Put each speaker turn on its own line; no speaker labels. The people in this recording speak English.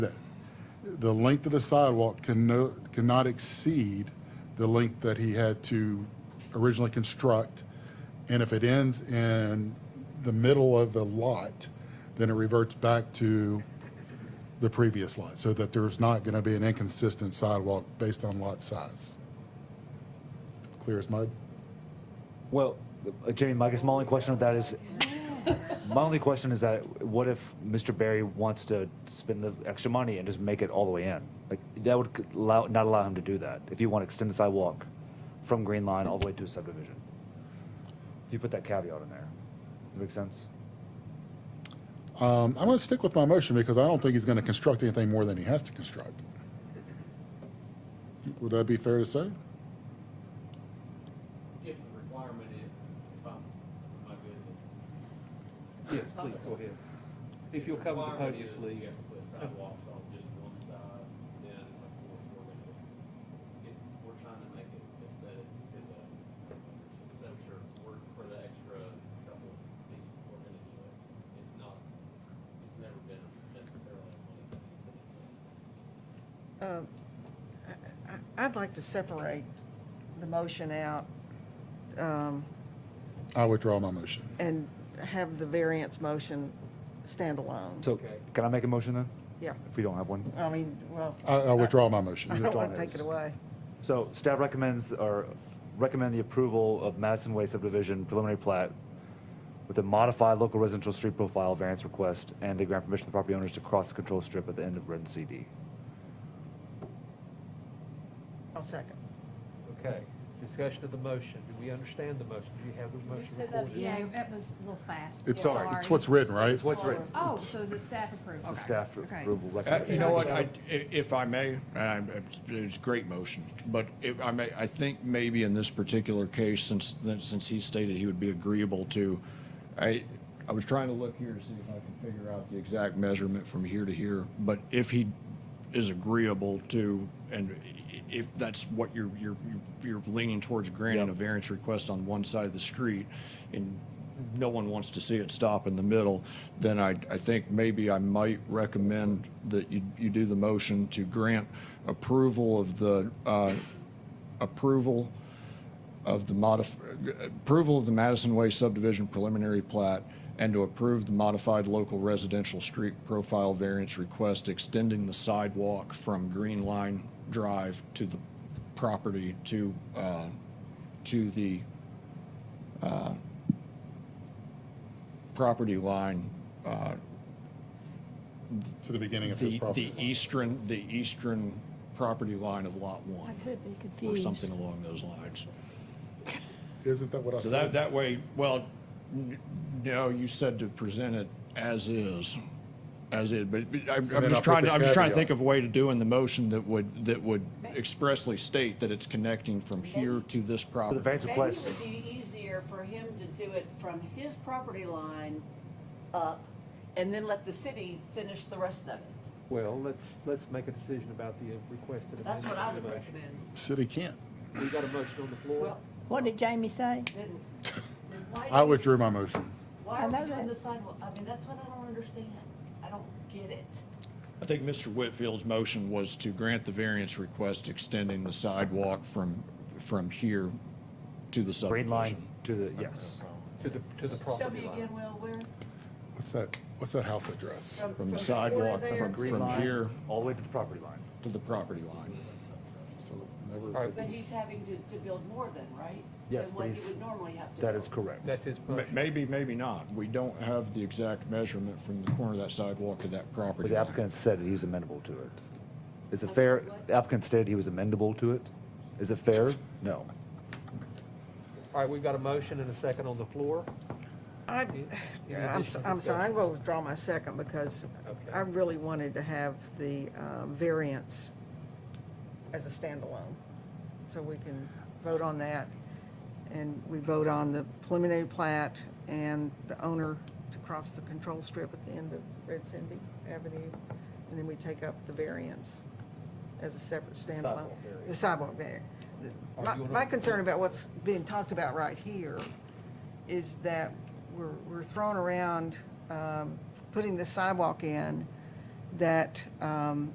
the length of the sidewalk can no, cannot exceed the length that he had to originally construct. And if it ends in the middle of a lot, then it reverts back to the previous lot, so that there's not gonna be an inconsistent sidewalk based on lot size. Clear as mud?
Well, uh, Jamie, my, I guess my only question with that is, my only question is that what if Mr. Barry wants to spend the extra money and just make it all the way in? Like, that would c- allow, not allow him to do that, if you want to extend the sidewalk from Green Line all the way to a subdivision. If you put that caveat in there, does that make sense?
Um, I'm gonna stick with my motion because I don't think he's gonna construct anything more than he has to construct. Would that be fair to say?
If the requirement is, if I'm, am I good?
Yes, please, go ahead. If you'll cover the
requirement
podium,
is we
please.
have to put sidewalks on just one side, then of course we're gonna, if we're trying to make it aesthetic to the, so I'm sure we're, for the extra couple of feet, we're gonna do it. It's not, it's never been necessarily a money thing, it's a
Um, I- I- I'd like to separate the motion out um,
I withdraw my motion.
and have the variance motion stand alone.
So,
Okay.
can I make a motion then,
Yeah,
if we don't have one?
I mean, well,
I, I withdraw my
I
motion.
don't
withdraw
want to take
his.
it away.
So staff recommends, or recommend the approval of Madison Way subdivision preliminary plat with a modified local residential street profile variance request and to grant permission to property owners to cross the control strip at the end of Red CD.
I'll second.
Okay, discussion of the motion. Do we understand the motion? Do you have the
You
motion
said that,
recorded?
yeah, that was a little fast.
It's,
Yeah,
it's what's written, right? It's what's written.
Oh, so is it staff approved?
The
Okay.
staff
Okay.
approval
Uh,
recommendation.
You know what, I- i- if I may, and I- it's- it's a great motion, but if I may, I think maybe in this particular case, since, since he stated he would be agreeable to, I, I was trying to look here to see if I can figure out the exact measurement from here to here, but if he is agreeable to, and i- if that's what you're, you're, you're leaning towards granting a variance request on one side of the street, and no one wants to see it stop in the middle, then I, I think maybe I might recommend that you, you do the motion to grant approval of the, uh, approval of the modif, approval of the Madison Way subdivision preliminary plat and to approve the modified local residential street profile variance request extending the sidewalk from Green Line Drive to the property to, uh, to the uh, property line, uh,
To the beginning of his
the,
property.
the eastern, the eastern property line of Lot 1,
could be
or
confused.
something along those lines.
Isn't that what I
So that,
said?
that way, well, n- no, you said to present it as is, as is, but but I'm,
then
I'm
I'll put
just trying,
the
to- I'm just trying to
caveat.
think of a way to do in the motion that would, that would expressly state that it's connecting from here to this
So The
property.
variance
Maybe it would
request,
be easier for him to do it from his property line up and then let the city finish the rest of it.
Well, let's, let's make a decision about the uh, requested amendment.
That's what I
to
would
the motion.
recommend.
City can't.
We got a motion on the floor.
Well,
What did Jamie say?
then, then why?
I
do-
withdrew my motion.
Why
I
are
know
we doing
that.
the sidewalk? I mean, that's what I don't understand. I don't get it.
I think Mr. Whitfield's motion was to grant the variance request extending the sidewalk from, from here to the
green
subdivision.
line to the, yes.
To the, to the
Show
property
me
line.
again, Will, where?
What's that, what's that house address?
From
From the
the corner
sidewalk,
there
from,
to-
Green
from
line
here
All the way to the property line.
to the property line.
So never-
All right.
But he's having to, to build more than, right?
Yes,
Than
but
what he
he's-
would normally have to.
That
build.
is correct.
That's his
Ma-
motion.
Maybe, maybe not. We don't have the exact measurement from the corner of that sidewalk to that
But
property.
the
line.
applicant said that he's amenable to it. Is it
I'm
fair,
sorry, what?
the applicant stated he was amenable to it? Is it fair? No.
All right, we've got a motion and a second on the floor.
I,
Any additional
I'm, I'm sorry, I'm
discussion?
going to withdraw my second because
Okay.
I really wanted to have the um, variance as a standalone. So we can vote on that. And we vote on the preliminary plat and the owner to cross the control strip at the end of Red Cindy Avenue. And then we take up the variance as a separate standalone.
Sidewalk variance.
The sidewalk variance.
Are
My,
you gonna-
my concern about what's being talked about right here is that we're, we're throwing around, um, putting the sidewalk in that, um,